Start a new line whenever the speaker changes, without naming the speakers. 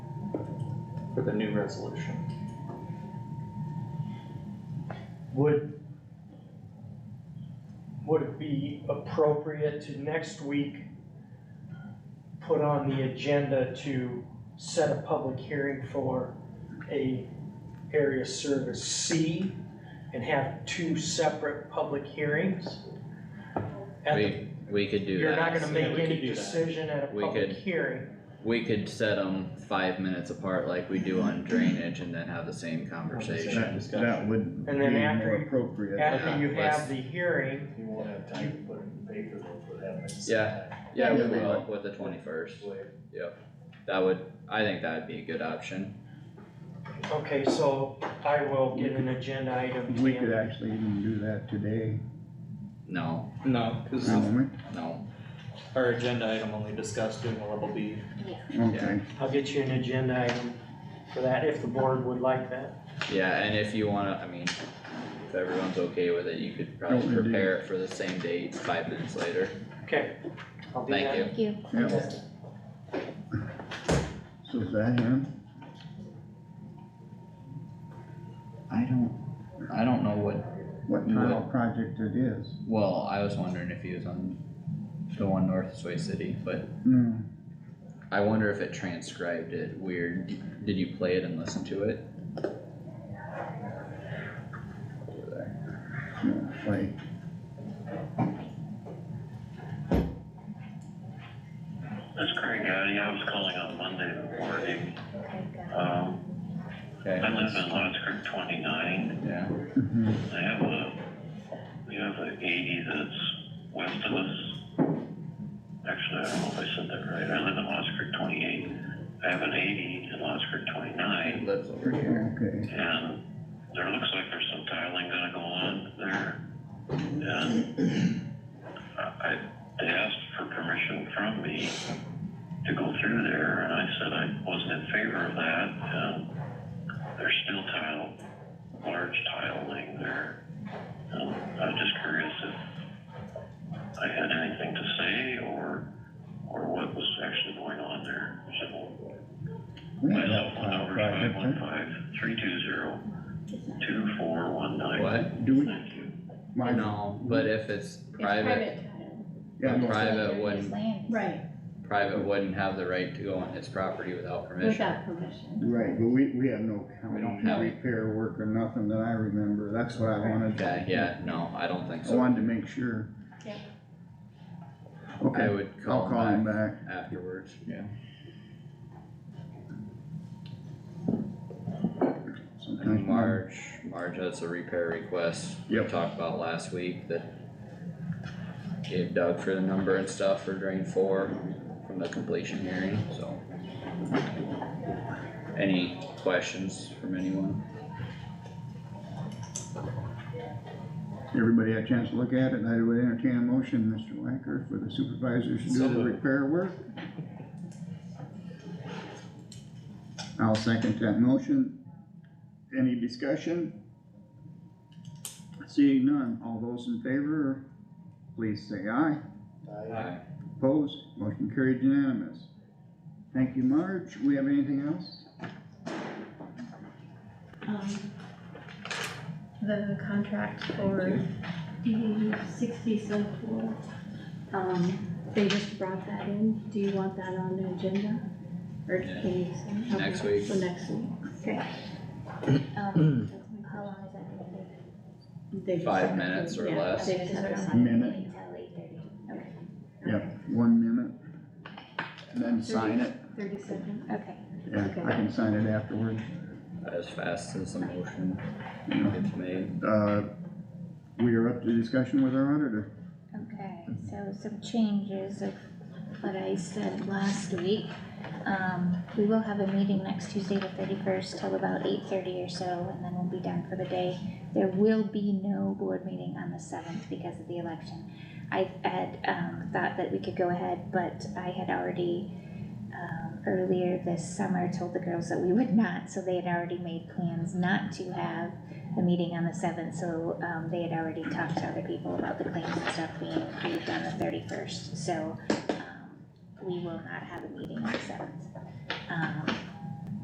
with a new resolution.
Would, would it be appropriate to next week put on the agenda to set a public hearing for a area service C and have two separate public hearings? At the-
We, we could do
You're not
that,
gonna
Yeah,
make
we could
any
do that.
decision at a
We
public
could-
hearing,
we could set them five minutes apart like we do on drainage and then have the same
Same
conversation.
That,
discussion.
that would be
And then after
more
you-
appropriate.
yeah,
after you
let's-
have the hearing,
You won't have time to put it in paper though, for that. next
Yeah.
time.
Yeah, we
Yeah, we
will with the twenty-first, that would, I think that'd be a good option,
okay, so I will get an agenda item. to
We
you.
could actually even do that today,
no,
No, cause
for a moment,
no,
our agenda item only discussed doing a level B.
okay.
I'll get you an agenda item for that, if the board would like that.
yeah, and if you wanna, I mean, if everyone's okay with it, you could
Don't
probably
we do-
prepare it for the same date five minutes later,
Okay. I'll do
thank
that.
you.
Thank you.
Yeah, so is that him?
I don't, I don't know what,
What kind of project it is?
well, I was wondering if he was on the one north of Sway City, but
No,
I wonder if it transcribed it weird, did you play it and listen to it? Over there.
no, wait,
This is Craig Gotti, I was calling on Monday morning. Um,
Okay,
I live in Lots Creek twenty-nine,
yeah,
mhm,
I have a, we have an eighty that's west of us. Actually, I don't know if I said that right, I live in Lots Creek twenty-eight, I have an eighty in Lots Creek
it
twenty-nine,
lives over here.
okay,
and there looks like there's some tiling gonna go on there. And I, I, they asked for permission from me to go through there, and I said I wasn't in favor of that, and there's still tile, large tiling there. And I'm just curious if I had anything to say, or, or what was actually going on there, so.
we
My
have
cell
a
phone
tile
number is five
project,
one
huh?
five, three two zero, two four one nine.
What?
do we?
Thank you.
why-
No, but if it's private,
Yeah, no,
Private one.
Right,
private wouldn't have the right to go on his property without permission.
without permission.
right, but we, we have no county
don't have-
repair work or nothing that I remember, that's what I wanted. to-
Okay, yeah, no, I don't think
I
so.
wanted to make sure.
Yeah.
I
Okay,
would
I'll
call
call him
him back
back.
afterwards, yeah.
Sometimes
And
my-
Marge, Marge, that's a repair request we
Yep.
talked about last week that gave Doug for the number and stuff for drain four from the completion hearing, so. Any questions from anyone?
Everybody had a chance to look at it, I would entertain a motion, Mr. Wacker, for the supervisors to do
So
the
moved.
repair work. I'll second that motion. Any discussion? Seeing none, all those in favor, please say aye.
Aye.
Opposed, motion carried unanimous. Thank you, Marge. We have anything else?
Um, The contract for the sixty so cool. Um, they just brought that in. Do you want that on the agenda? Or
Yeah.
can you say?
Next
okay,
week.
For next week. Okay.
Um, how long is that gonna take?
They just
Five
have to-
minutes or
yeah,
less.
They just have
Mm-hmm.
to.
Minute.
Until eight thirty.
Yep, one minute. And then sign it.
Thirty seconds.
Okay.
Yeah, I can sign it afterwards.
As fast as the motion
you know.
gets made.
Uh, we are up to discussion with our auditor.
Okay, so some changes of what I said last week. Um, we will have a meeting next Tuesday, the thirty-first, till about eight thirty or so, and then we'll be done for the day. There will be no board meeting on the seventh because of the election. I had, um, thought that we could go ahead, but I had already, um, earlier this summer told the girls that we would not, so they had already made plans not to have the meeting on the seventh, so, um, they had already talked to other people about the claims and stuff being approved on the thirty-first, so, um, we will not have a meeting on the seventh. Um,